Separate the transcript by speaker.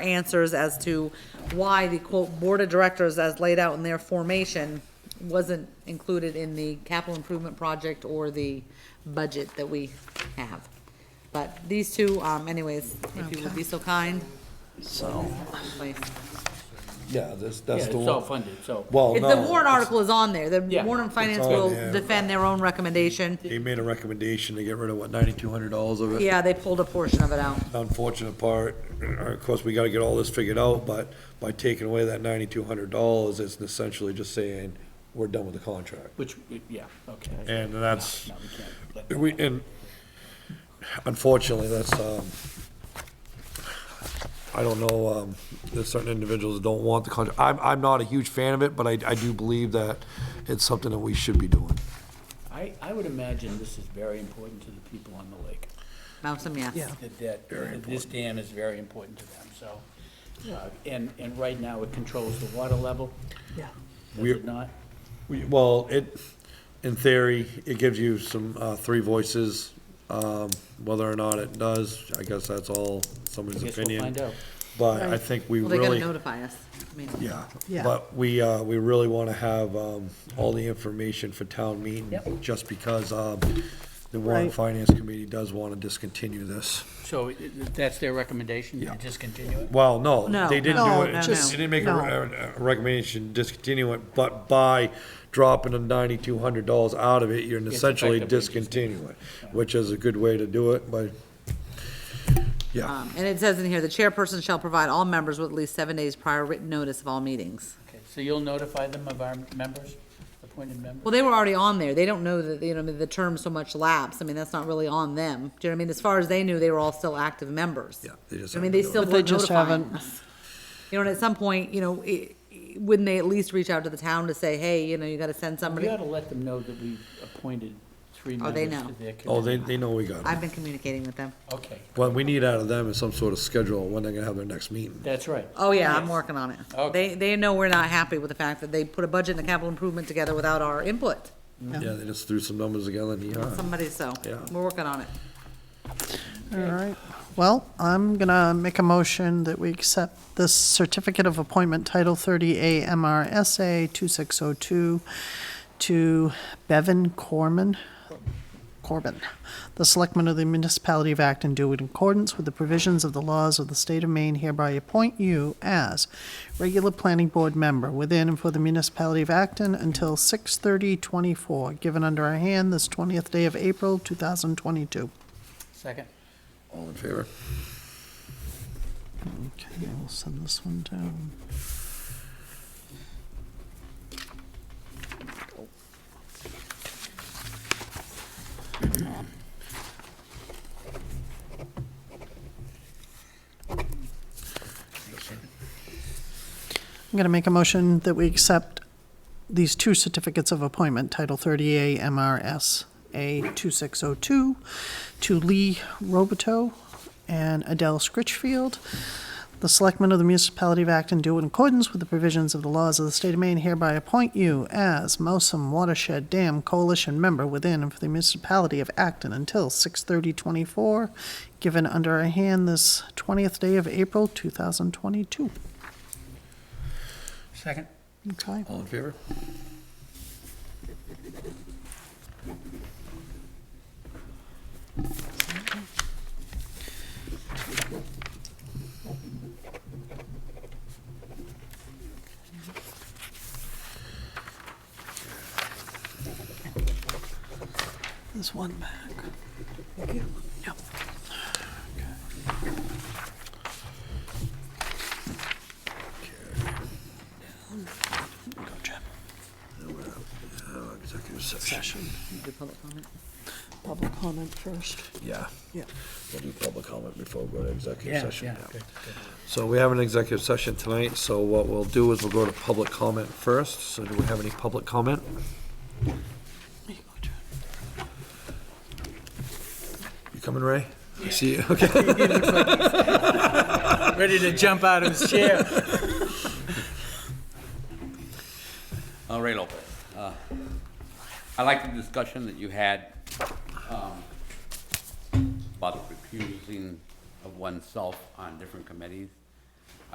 Speaker 1: answers as to why the quote board of directors as laid out in their formation wasn't included in the capital improvement project or the budget that we have. But these two, um, anyways, if you would be so kind.
Speaker 2: So,
Speaker 1: please.
Speaker 2: yeah, this,
Speaker 3: Yeah,
Speaker 2: that's
Speaker 3: it's
Speaker 2: the
Speaker 3: all
Speaker 2: one.
Speaker 3: funded, so.
Speaker 2: Well,
Speaker 1: If
Speaker 2: no.
Speaker 1: the warrant article is on there, the
Speaker 3: Yeah.
Speaker 1: warrant and finance
Speaker 2: on
Speaker 1: will
Speaker 2: there.
Speaker 1: defend their own recommendation.
Speaker 2: He made a recommendation to get rid of, what, ninety-two hundred dollars of it?
Speaker 1: Yeah, they pulled a portion of it out.
Speaker 2: Unfortunate part, of course, we gotta get all this figured out, but by taking away that ninety-two hundred dollars, it's essentially just saying, we're done with the contract.
Speaker 3: Which, yeah, okay.
Speaker 2: And that's,
Speaker 3: No, we can't, but-
Speaker 2: we, and unfortunately, that's, um, I don't know, um, there's certain individuals that don't want the contract. I'm, I'm not a huge fan of it, but I, I do believe that it's something that we should be doing.
Speaker 3: I, I would imagine this is very important to the people on the lake.
Speaker 1: Mountain, yes.
Speaker 3: That- That, this dam is very important to them, so. uh, And, and right now it controls the water level, does
Speaker 2: We're-
Speaker 3: it not?
Speaker 2: We- Well, it, in theory, it gives you some, uh, three voices, um, whether or not it does, I guess that's all somebody's
Speaker 3: I guess we'll
Speaker 2: opinion.
Speaker 3: find out.
Speaker 2: But I think we
Speaker 1: Well, they gotta
Speaker 2: really.
Speaker 1: notify us. I mean,
Speaker 2: Yeah,
Speaker 4: Yeah.
Speaker 2: but we, uh, we really want to have, um, all the information for town meeting,
Speaker 3: Yep.
Speaker 2: just because, um, the Warren
Speaker 4: Right.
Speaker 2: Finance Committee does want to discontinue this.
Speaker 3: So i- i- that's their recommendation, to
Speaker 2: Yeah.
Speaker 3: discontinue it?
Speaker 2: Well, no,
Speaker 1: No,
Speaker 2: they didn't
Speaker 1: no,
Speaker 2: do
Speaker 1: no,
Speaker 2: it,
Speaker 1: just-
Speaker 2: they didn't make a
Speaker 4: no.
Speaker 2: re- a recommendation to discontinue it, but by dropping the ninety-two hundred dollars out of it, you're essentially
Speaker 3: effectively just-
Speaker 2: discontinuing it, which is a good way to do it, but, yeah,
Speaker 1: Um, and it says in here, the chairperson shall provide all members with at least seven days prior written notice of all meetings.
Speaker 3: Okay, So you'll notify them of our members, appointed members?
Speaker 1: Well, they were already on there. They don't know that, you know, I mean, the term so much lapse. I mean, that's not really on them. Do you know what I mean? As far as they knew, they were all still active members.
Speaker 2: Yeah, they just
Speaker 1: I mean,
Speaker 2: haven't
Speaker 1: they
Speaker 2: done it.
Speaker 1: still
Speaker 4: But they
Speaker 1: weren't
Speaker 4: just
Speaker 1: notifying
Speaker 4: haven't.
Speaker 1: us. You know, and at some point, you know, i i- wouldn't they at least reach out to the town to say, hey, you know, you gotta send
Speaker 3: We
Speaker 1: somebody?
Speaker 3: ought to let them know that we've appointed three
Speaker 1: Oh, they
Speaker 3: members
Speaker 1: know.
Speaker 3: to their committee.
Speaker 2: oh, they, they know we got it.
Speaker 1: I've been communicating with them.
Speaker 3: Okay,
Speaker 2: What we need out of them is some sort of schedule, when they're gonna have their next meeting.
Speaker 3: that's right.
Speaker 1: Oh, yeah, I'm
Speaker 3: Yes.
Speaker 1: working on it.
Speaker 3: Okay.
Speaker 1: They, they know we're not happy with the fact that they put a budget and a capital improvement together without our input.
Speaker 2: Yeah, they just threw some numbers together and, yeah.
Speaker 1: Somebody, so,
Speaker 2: Yeah.
Speaker 1: we're working on it.
Speaker 4: All right. Well, I'm gonna make a motion that we accept this certificate of appointment, Title 30A MRSA 2602, to Bevan Corman, Corbin, the selectman of the municipality of Acton, do in accordance with the provisions of the laws of the state of Maine, hereby appoint you as regular planning board member within and for the municipality of Acton until 6/30/24, given under our hand this 20th day of April, 2022.
Speaker 3: Second,
Speaker 2: All in favor?
Speaker 4: Okay, we'll send this one down. I'm going to make a motion that we accept these two certificates of appointment, Title 30A MRS A 2602, to Lee Roboto and Adele Scritchfield. The selectmen of the municipality of Acton do in accordance with the provisions of the laws of the state of Maine hereby appoint you as Mosum Watershed Dam Coalition member within and for the municipality of Acton until 6/30/24, given under our hand this 20th day of April 2022.
Speaker 3: second?
Speaker 4: Okay.
Speaker 2: All in favor?
Speaker 4: There's one back. Yep. Go, Jim.
Speaker 2: uh, Executive session.
Speaker 4: Session.
Speaker 1: Do public comment?
Speaker 4: Public comment first.
Speaker 2: Yeah.
Speaker 4: Yeah.
Speaker 2: We'll do public comment before we go to executive
Speaker 3: Yeah,
Speaker 2: session.
Speaker 3: yeah,
Speaker 2: yeah.
Speaker 3: good, good.
Speaker 2: So we have an executive session tonight, so what we'll do is we'll go to public comment first. So do we have any public comment?
Speaker 4: There you go, Jim.
Speaker 2: You coming, Ray? I see you, okay.
Speaker 3: ready to jump out of his chair.
Speaker 5: Uh, Ray Lopez. Uh, I like the discussion that you had um, about the recusing of oneself on different committees.